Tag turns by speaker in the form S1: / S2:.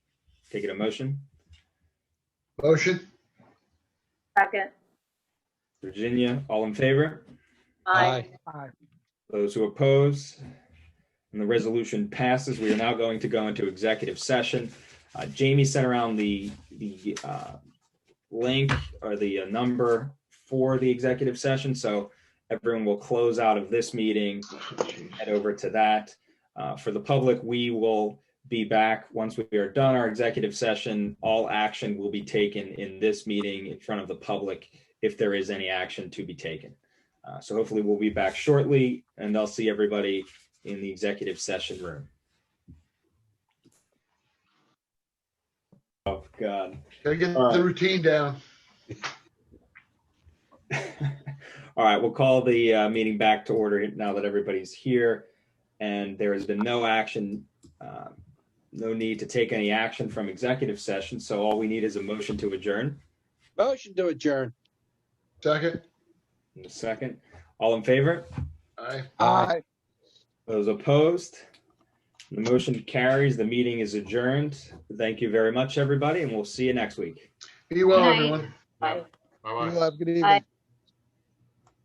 S1: Take it a motion.
S2: Motion?
S3: Second.
S1: Virginia, all in favor?
S3: Aye.
S1: Those who oppose? And the resolution passes. We are now going to go into executive session. Uh, Jamie sent around the, the uh, link or the uh, number for the executive session. So everyone will close out of this meeting, head over to that. Uh, For the public, we will be back once we are done our executive session. All action will be taken in this meeting in front of the public if there is any action to be taken. Uh, So hopefully we'll be back shortly and I'll see everybody in the executive session room. Oh, God.
S2: Gotta get
S1: All right.
S2: the routine down.
S1: All right, we'll call the uh, meeting back to order now that everybody's here. And there has been no action, uh, no need to take any action from executive session. So all we need is a motion to adjourn.
S4: Motion to adjourn.
S2: Second?
S1: In a second, all in favor?
S2: Aye.
S4: Aye.
S1: Those opposed? The motion carries. The meeting is adjourned. Thank you very much, everybody, and we'll see you next week.
S2: Be well,
S3: Good night.
S2: everyone.
S3: Aye.
S4: You have a good evening.
S3: Aye.